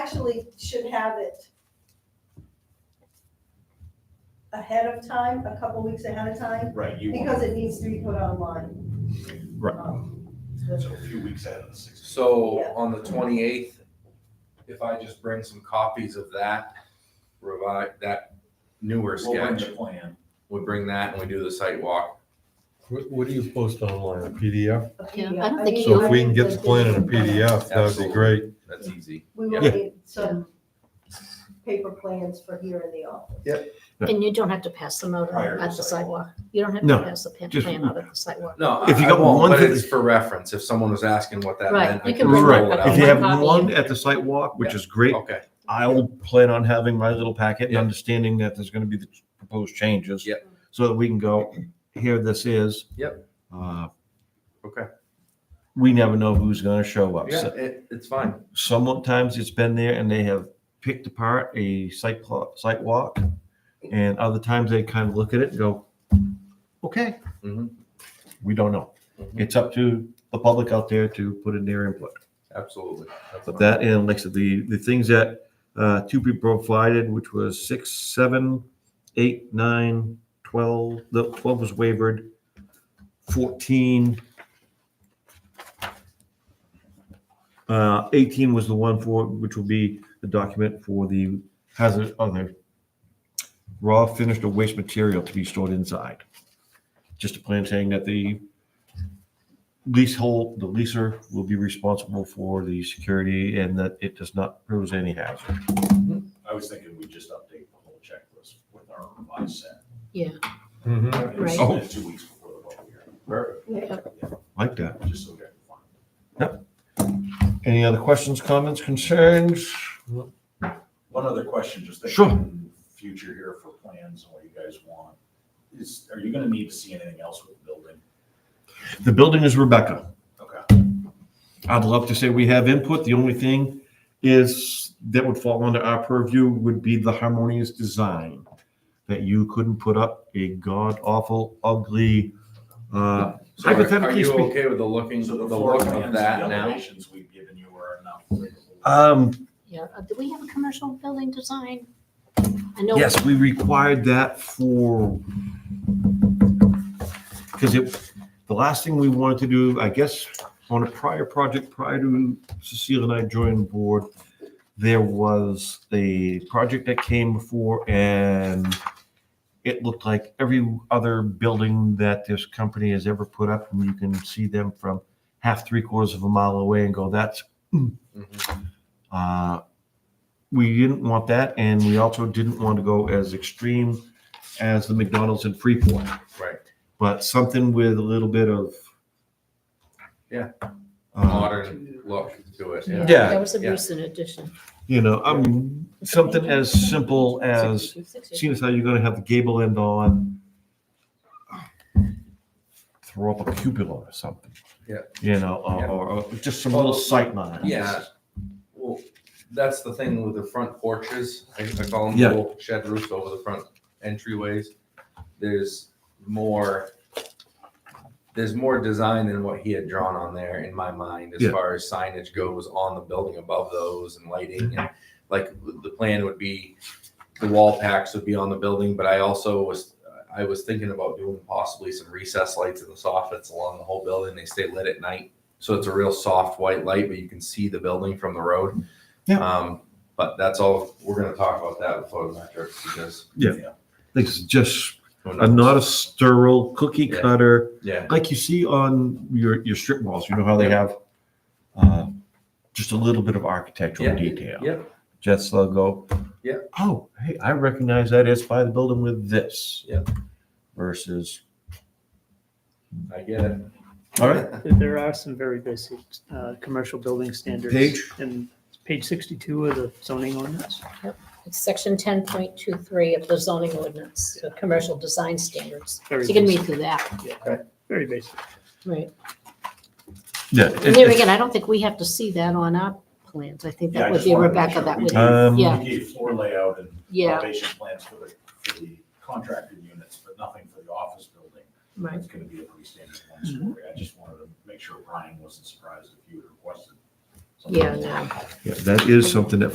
actually should have it ahead of time, a couple weeks ahead of time, Right, you want, because it needs to be put online. Right. Um, so a few weeks ahead of the six. So Yeah. on the twenty-eighth, if I just bring some copies of that revi that newer We'll bring sketch, the plan. we bring that and we do the site walk. What, what do you post online, a PDF? a Yeah, I PDF. don't think mean, So you- if we can get the plan in a PDF, that'd be Absolutely. great. That's easy. We will Yeah. need some paper plans for here in the office. And you don't have to pass them out Prior to at the sidewalk. sidewalk. You don't have No, to pass the pan- just- plan out at the sidewalk. No, If you I got won't, one but thing- it's for reference. If someone was asking what that Right, meant, I you can can bring roll one it copy. If you out. have One copy. one at the site walk, which is great, Okay, I'll plan on having my little packet and Yeah. understanding that there's gonna be the proposed changes. Yep. So that we can go, here this is. Yep. Uh, okay. We never know who's gonna show up. Yeah, So it, it's fine. Sometimes it's been there and they have picked apart a site plot, site walk. And other times they kind of look at it and go, okay, Mhm, we don't know. mhm, It's up to the public out there to put in their input. Absolutely. That's But fine. that, and like I said, the, the things that, uh, to be provided, which was six, seven, eight, nine, twelve, the twelve was wavered, fourteen. Uh, eighteen was the one for, which will be the document for the hazard, other raw finished or waste material to be stored inside. Just a plan saying that the leasehold, the leaser will be responsible for the security and that it does not pose any hazard. I was thinking we just update the whole checklist with our revised set. And Right. Oh. send it Two weeks before the vote here. Perfect. Yeah. Like that. Just so we can find. Any other questions, comments, concerns? One other question, just Sure. thinking future here for plans and what you guys want. Is, are you gonna need to see anything else with the building? The building is Rebecca. Okay. I'd love to say we have input. The only thing is that would fall under our purview would be the harmonious design. That you couldn't put up a god awful ugly, uh, So are- are Hypothetically you speak- okay with the looking, the So the floor look plans of and the that now? elevations we've given you are enough. um, Yeah, Uh, do we have a commercial building design? I know. Yes, we required that for, because it, the last thing we wanted to do, I guess, on a prior project, prior to Cecile and I joining the board, there was a project that came before and it looked like every other building that this company has ever put up, and you can see them from half, three quarters of a mile away and go, that's Mhm, uh, we didn't want that, and we also didn't want to go as extreme as the McDonald's in Freeport, Right. but something with a little bit of. Yeah. uh, Modern look to it, yeah. Yeah. That was a Yeah. recent addition. You know, I mean, something as simple as, seeing as how you're gonna have the gable end on, throw up a cupola or something. Yeah. You know, or, Yeah. or or just some little sight lines. Yeah. Well, that's the thing with the front porches, I I call them Yeah. little shed roofs over the front entryways. There's more, there's more design than what he had drawn on there in my mind as Yeah. far as signage goes on the building above those and lighting and like the plan would be the wall packs would be on the building, but I also was, I was thinking about doing possibly some recess lights in the soffits along the whole building. They stay lit at night. So it's a real soft white light, but you can see the building from the road. Yeah. Um, but that's all, we're gonna talk about that with photometrics because. It's just who a knows? not a sterile cookie Yeah. cutter. Yeah, like you see on your your strip malls, you know how they have uh, just a little bit of architectural Yeah. detail. Yep. Jets logo. Yeah. Oh, hey, I recognize that it's by the building with this. Yep. Versus. I get it. All right. There are some very basic uh, commercial building standards. Page? And page 62 of the zoning ordinance. It's section ten point two three of the zoning ordinance, the commercial design standards. So Very you can basic. read through that, Very basic. right? Yeah. And there again, I don't think we have to see that on our plans. I think Yeah, I that would just be wanted to make Rebecca, sure that we would, did. Um, yeah. We gave floor layout and yeah, elevation plans for the, for the contracted units, but nothing for the office building. right. Mm-hmm. It's gonna be a pretty standard one story. I just wanted to make sure Brian wasn't surprised if you requested. something. Yeah, no. Yeah, that is something that